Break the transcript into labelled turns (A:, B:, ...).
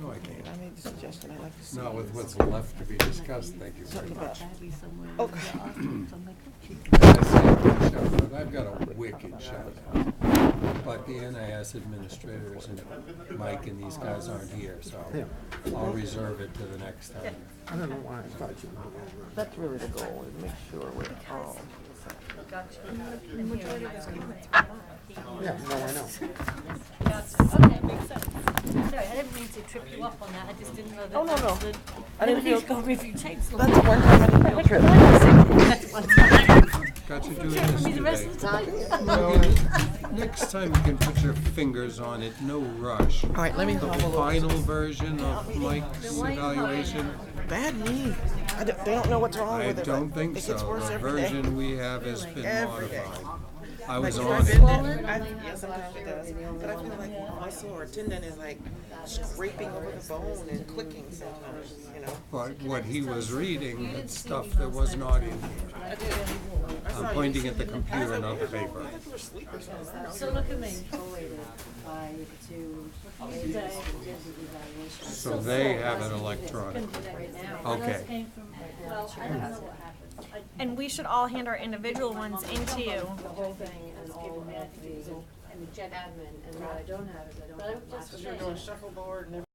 A: I can't.
B: I made the suggestion, I like to see.
A: Not with what's left to be discussed, thank you very
B: Something
A: much.
B: about-
A: I say a good shot, but I've got a wicked shot. But the NIS administrators and Mike and these guys aren't here, so I'll reserve it to the next time.
C: I don't know why I thought you were over.
B: That's really the goal, is make sure we're all,
C: Yeah, no, I know.
D: That's, okay, makes sense. Sorry, I didn't mean to trip you up on that, I just didn't know that.
B: Oh, no,
D: that was
B: no.
D: the-
B: I didn't
D: Nobody's
B: feel-
D: gonna review tapes.
B: that's one time on the field trip.
D: That's one time.
A: Got you doing
D: Check for
A: this
D: me the rest
A: today.
D: of the time.
A: No, you- Next time you can put your fingers on it, no rush.
B: All right, let me
A: The
B: hobble over.
A: final version of Mike's evaluation,
B: Bad knee. I don't, they don't know what's wrong
A: I
B: with it. but
A: don't think
B: It
A: so.
B: gets worse
A: The
B: every day.
A: version we have has been
B: Every day.
A: modified. I was
B: Like,
A: on
B: if I've
A: it.
B: been there- I've- Yeah, sometimes it does, but I feel like a muscle or a tendon is like scraping over the bone and clicking sometimes, you know?
A: But what he was reading had stuff that was not in here. I'm pointing at the computer, not the paper.
B: People are sleepers.
D: So look at me.
A: So they have it electronic. Okay.
E: And we should all hand our individual ones into you.
F: The whole thing and all of the, and the admin, and what I don't have is I don't have.
D: But I'm just
F: last
D: saying.
F: year's.
B: Shuffleboard and